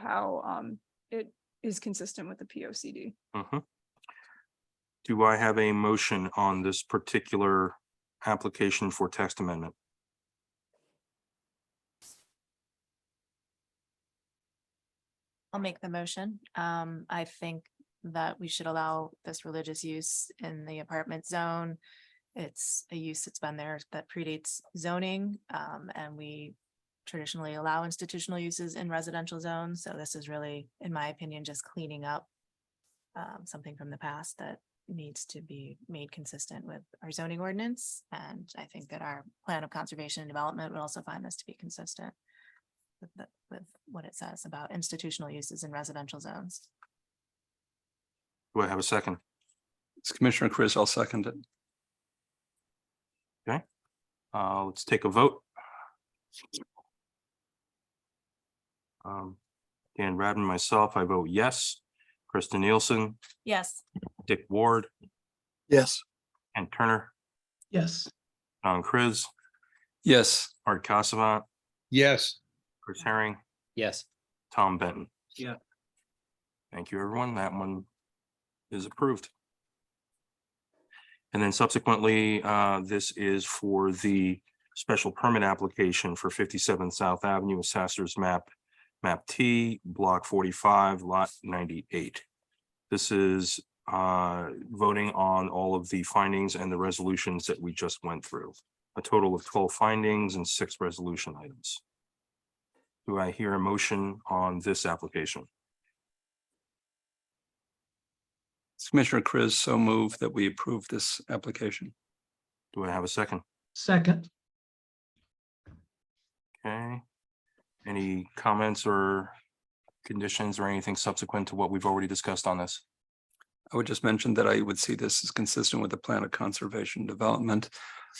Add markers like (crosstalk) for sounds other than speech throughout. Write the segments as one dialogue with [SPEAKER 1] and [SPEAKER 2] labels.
[SPEAKER 1] how um it is consistent with the P O C D.
[SPEAKER 2] Mhm. Do I have a motion on this particular application for text amendment?
[SPEAKER 3] I'll make the motion. Um, I think that we should allow this religious use in the apartment zone. It's a use that's been there that predates zoning, um, and we traditionally allow institutional uses in residential zones, so this is really, in my opinion, just cleaning up um, something from the past that needs to be made consistent with our zoning ordinance, and I think that our plan of conservation and development would also find this to be consistent with the, with what it says about institutional uses in residential zones.
[SPEAKER 2] Do I have a second?
[SPEAKER 4] It's Commissioner Chris, I'll second it.
[SPEAKER 2] Uh, let's take a vote. Um, Dan Radman, myself, I vote yes. Krista Nielsen,
[SPEAKER 3] Yes.
[SPEAKER 2] Dick Ward,
[SPEAKER 4] Yes.
[SPEAKER 2] and Turner,
[SPEAKER 5] Yes.
[SPEAKER 2] Don Chris,
[SPEAKER 4] Yes,
[SPEAKER 2] Art Casavant,
[SPEAKER 6] Yes.
[SPEAKER 2] Chris Herring,
[SPEAKER 6] Yes.
[SPEAKER 2] Tom Benton.
[SPEAKER 5] Yeah.
[SPEAKER 2] Thank you, everyone. That one is approved. And then subsequently, uh, this is for the special permit application for fifty-seven South Avenue, Assessor's Map, Map T, Block forty-five, Lot ninety-eight. This is uh, voting on all of the findings and the resolutions that we just went through. A total of twelve findings and six resolution items. Do I hear a motion on this application?
[SPEAKER 4] it's Commissioner Chris, so move that we approve this application.
[SPEAKER 2] Do I have a second?
[SPEAKER 5] Second,
[SPEAKER 2] Okay. Any comments or conditions or anything subsequent to what we've already discussed on this?
[SPEAKER 4] I would just mention that I would see this as consistent with the plan of conservation and development.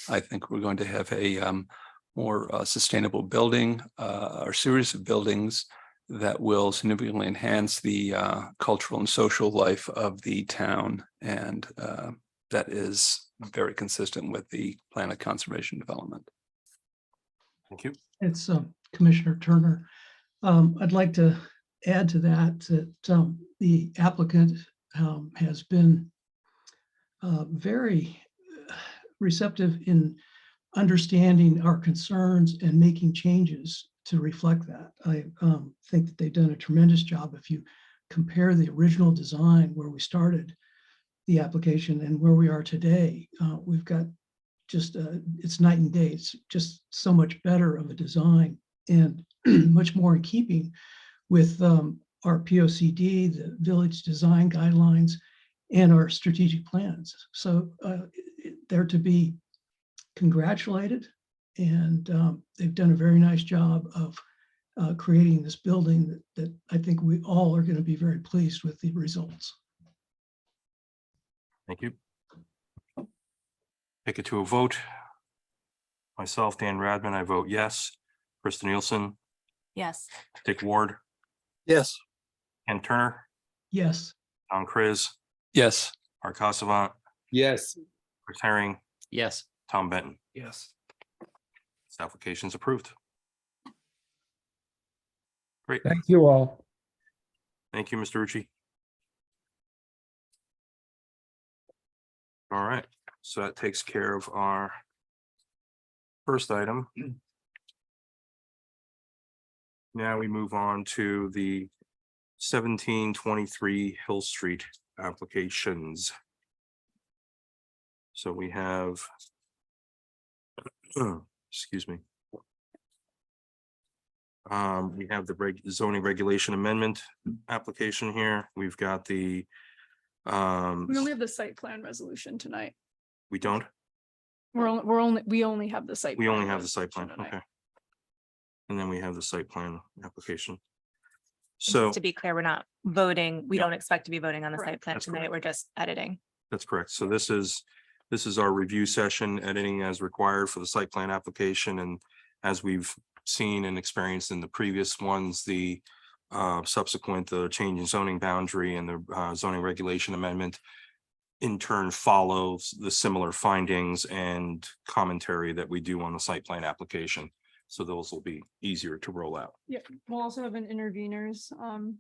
[SPEAKER 4] I think we're going to have a um, more uh, sustainable building, uh, or series of buildings that will significantly enhance the uh, cultural and social life of the town. And uh, that is very consistent with the plan of conservation and development.
[SPEAKER 2] Thank you.
[SPEAKER 5] it's uh, Commissioner Turner. Um, I'd like to add to that, that um, the applicant um, has been uh, very uh, receptive in understanding our concerns and making changes to reflect that. I um, think that they've done a tremendous job. If you compare the original design where we started the application and where we are today, uh, we've got just uh, it's night and day. It's just so much better of a design and (clears throat) much more in keeping with um, our POCD, the village design guidelines, and our strategic plans. So uh, it- they're to be congratulated, and um, they've done a very nice job of uh, creating this building that, that I think we all are going to be very pleased with the results.
[SPEAKER 2] Thank you. Take it to a vote. Myself, Dan Radman, I vote yes. Krista Nielsen,
[SPEAKER 3] Yes.
[SPEAKER 2] Dick Ward,
[SPEAKER 4] Yes.
[SPEAKER 2] Ken Turner,
[SPEAKER 5] Yes.
[SPEAKER 2] Don Chris,
[SPEAKER 4] Yes.
[SPEAKER 2] Art Casavant,
[SPEAKER 6] Yes.
[SPEAKER 2] Chris Herring,
[SPEAKER 6] Yes.
[SPEAKER 2] Tom Benton.
[SPEAKER 4] Yes.
[SPEAKER 2] This application is approved. Great.
[SPEAKER 6] Thank you all.
[SPEAKER 2] Thank you, Mr. Rucci. All right, so that takes care of our first item. (clears throat) Now we move on to the seventeen twenty-three Hill Street applications. So we have (clears throat) excuse me. Um, we have the reg- zoning regulation amendment application here. We've got the um,
[SPEAKER 1] We only have the site plan resolution tonight.
[SPEAKER 2] we don't,
[SPEAKER 1] We're only, we're only, we only have the site.
[SPEAKER 2] we
[SPEAKER 1] plan
[SPEAKER 2] only have the site plan,
[SPEAKER 1] resolution
[SPEAKER 2] okay.
[SPEAKER 1] tonight.
[SPEAKER 2] And then we have the site plan application.
[SPEAKER 3] And just
[SPEAKER 2] So
[SPEAKER 3] To be clear, we're not voting. We
[SPEAKER 2] Yeah.
[SPEAKER 3] don't expect to be voting on the
[SPEAKER 1] Correct.
[SPEAKER 3] site plan
[SPEAKER 2] That's
[SPEAKER 3] tonight.
[SPEAKER 2] correct.
[SPEAKER 3] We're just editing.
[SPEAKER 2] that's correct. So this is, this is our review session, editing as required for the site plan application and as we've seen and experienced in the previous ones, the uh, subsequent, the change in zoning boundary and the uh, zoning regulation amendment in turn follows the similar findings and commentary that we do on the site plan application. So those will be easier to roll out.
[SPEAKER 1] We'll also have an interveners um